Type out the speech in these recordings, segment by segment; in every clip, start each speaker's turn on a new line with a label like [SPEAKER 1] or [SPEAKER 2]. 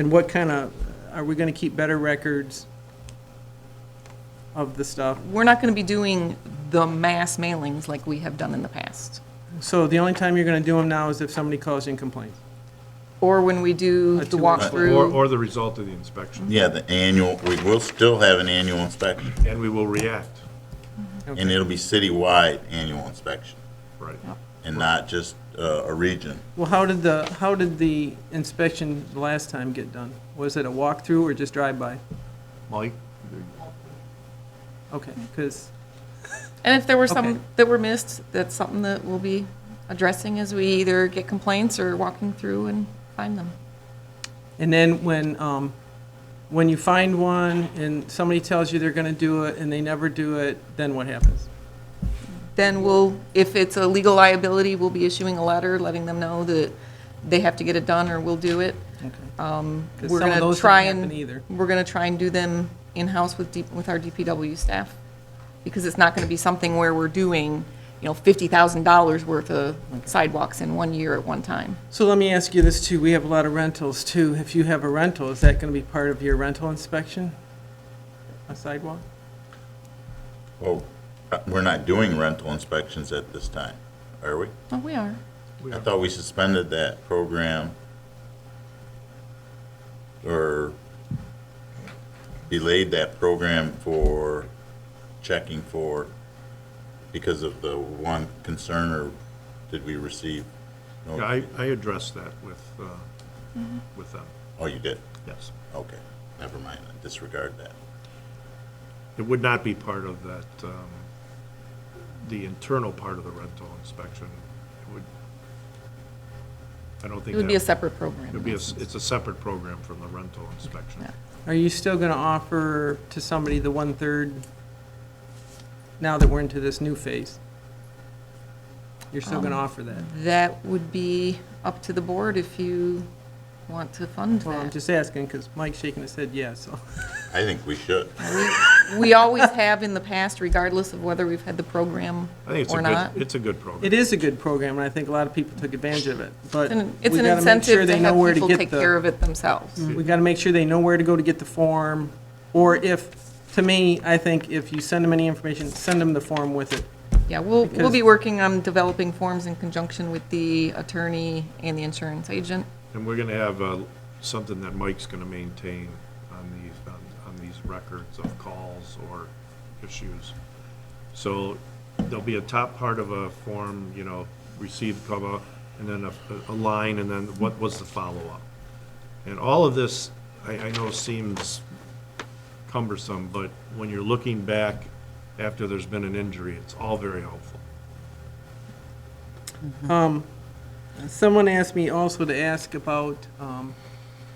[SPEAKER 1] And what kind of, are we going to keep better records of the stuff?
[SPEAKER 2] We're not going to be doing the mass mailings like we have done in the past,
[SPEAKER 1] So the only time you're going to do them now is if somebody calls in complaints.
[SPEAKER 2] or when we do
[SPEAKER 1] A
[SPEAKER 2] the
[SPEAKER 1] two- Right.
[SPEAKER 3] Or,
[SPEAKER 2] walkthrough.
[SPEAKER 3] or the result of the inspection,
[SPEAKER 4] Yeah, the annual, we will still have an annual inspection,
[SPEAKER 3] and we will react,
[SPEAKER 4] and it'll be citywide annual inspection,
[SPEAKER 3] right.
[SPEAKER 4] and not just uh, a region.
[SPEAKER 1] Well, how did the, how did the inspection the last time get done? Was it a walkthrough or just drive-by?
[SPEAKER 3] Mike?
[SPEAKER 1] Okay, because,
[SPEAKER 2] And if there were
[SPEAKER 1] Okay.
[SPEAKER 2] some that were missed, that's something that we'll be addressing as we either get complaints or walking through and find them.
[SPEAKER 1] and then when, um, when you find one and somebody tells you they're going to do it and they never do it, then what happens?
[SPEAKER 2] Then we'll, if it's a legal liability, we'll be issuing a letter letting them know that they have to get it done or we'll do it. Um,
[SPEAKER 1] 'Cause
[SPEAKER 2] We're
[SPEAKER 1] some of
[SPEAKER 2] going
[SPEAKER 1] those don't
[SPEAKER 2] to try
[SPEAKER 1] happen
[SPEAKER 2] and,
[SPEAKER 1] either.
[SPEAKER 2] we're going to try and do them in-house with, D- with our DPW staff. Because it's not going to be something where we're doing, you know, $50,000 worth of sidewalks in one year at one time.
[SPEAKER 1] So let me ask you this too, we have a lot of rentals too. If you have a rental, is that going to be part of your rental inspection? A sidewalk?
[SPEAKER 4] Well, uh, we're not doing rental inspections at this time, are we?
[SPEAKER 2] Oh, we are.
[SPEAKER 4] I thought we suspended that program or delayed that program for checking for, because of the one concern, or did we receive? no-
[SPEAKER 3] Yeah, I, I addressed that with, uh,
[SPEAKER 2] Mm-hmm.
[SPEAKER 3] with them,
[SPEAKER 4] Oh, you did?
[SPEAKER 3] yes.
[SPEAKER 4] Okay, never mind, I disregard that.
[SPEAKER 3] It would not be part of that, um, the internal part of the rental inspection. It would, I don't think.
[SPEAKER 2] It would
[SPEAKER 3] that-
[SPEAKER 2] be a separate
[SPEAKER 3] It would
[SPEAKER 2] program.
[SPEAKER 3] be, a s- it's a separate program from the rental inspection.
[SPEAKER 2] Yeah.
[SPEAKER 1] Are you still going to offer to somebody the one-third now that we're into this new phase? You're still
[SPEAKER 2] Um,
[SPEAKER 1] going to offer that?
[SPEAKER 2] That would be up to the board if you want to fund
[SPEAKER 1] Well, I'm
[SPEAKER 2] that.
[SPEAKER 1] just asking because Mike's shaking his head yes, so.
[SPEAKER 4] I think we should.
[SPEAKER 2] We always have in the past, regardless of whether we've had the program
[SPEAKER 3] I think it's
[SPEAKER 2] or
[SPEAKER 3] a
[SPEAKER 2] not.
[SPEAKER 3] good, it's a good program.
[SPEAKER 1] It is a good program and I think a lot of people took advantage of it, but
[SPEAKER 2] It's an-
[SPEAKER 1] we
[SPEAKER 2] It's
[SPEAKER 1] got
[SPEAKER 2] an
[SPEAKER 1] to make sure
[SPEAKER 2] incentive to
[SPEAKER 1] they know where
[SPEAKER 2] have
[SPEAKER 1] to
[SPEAKER 2] people
[SPEAKER 1] get
[SPEAKER 2] take care
[SPEAKER 1] the.
[SPEAKER 2] of it themselves.
[SPEAKER 1] We got to make sure they know where to go to get the form. Or if, to me, I think if you send them any information, send them the form with it.
[SPEAKER 2] Yeah, we'll, we'll
[SPEAKER 1] Because-
[SPEAKER 2] be working on developing forms in conjunction with the attorney and the insurance agent.
[SPEAKER 3] And we're gonna have, uh, something that Mike's gonna maintain on these, on, on these records of calls or issues. So there'll be a top part of a form, you know, received, comma, and then a, a line, and then what was the follow-up? And all of this, I, I know seems cumbersome, but when you're looking back after there's been an injury, it's all very helpful.
[SPEAKER 1] Someone asked me also to ask about, um,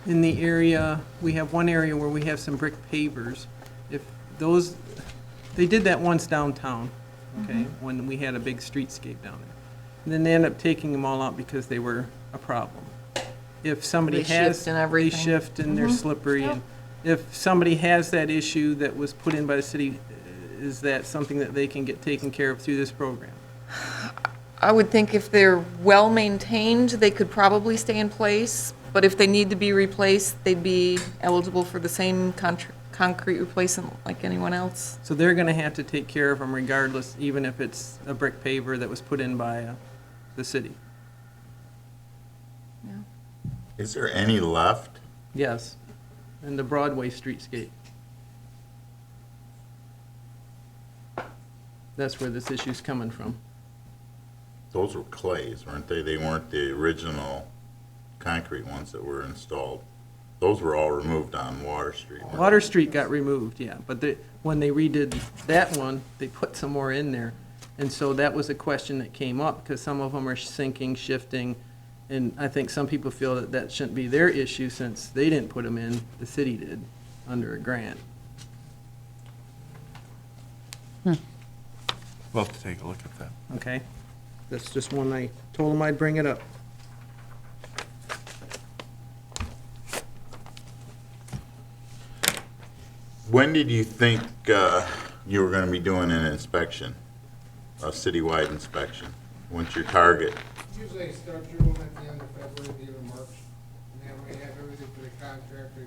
[SPEAKER 1] in the area, we have one area where we have some brick pavers. If those, they did that once downtown, okay,
[SPEAKER 2] Mm-hmm.
[SPEAKER 1] when we had a big streetscape down there. And then they end up taking them all out because they were a problem. If somebody
[SPEAKER 2] They shift
[SPEAKER 1] has.
[SPEAKER 2] and everything. Mm-hmm.
[SPEAKER 1] They shift and they're slippery. and If somebody has that issue that was put in by the city, is that something that they can get taken care of through this program?
[SPEAKER 2] I would think if they're well-maintained, they could probably stay in place, but if they need to be replaced, they'd be eligible for the same contr- concrete replacement like anyone else.
[SPEAKER 1] So they're gonna have to take care of them regardless, even if it's a brick paver that was put in by uh, the city?
[SPEAKER 4] Is there any left?
[SPEAKER 1] Yes. And the Broadway streetscape? That's where this issue's coming from.
[SPEAKER 4] Those were clays, weren't they? They weren't the original concrete ones that were installed. Those were all removed on Water Street. weren't they?
[SPEAKER 1] Water Street got removed, yeah, but they, when they redid that one, they put some more in there. And so that was a question that came up, because some of them are sinking, shifting, and I think some people feel that that shouldn't be their issue since they didn't put them in, the city did, under a grant.
[SPEAKER 3] We'll have to take a look at that.
[SPEAKER 1] Okay, that's just one I told him I'd bring it up.
[SPEAKER 4] When did you think uh, you were going to be doing an inspection, a citywide inspection? What's your target?
[SPEAKER 5] Usually I start doing them at the end of February, the end of March, and that way they have everything for the contractor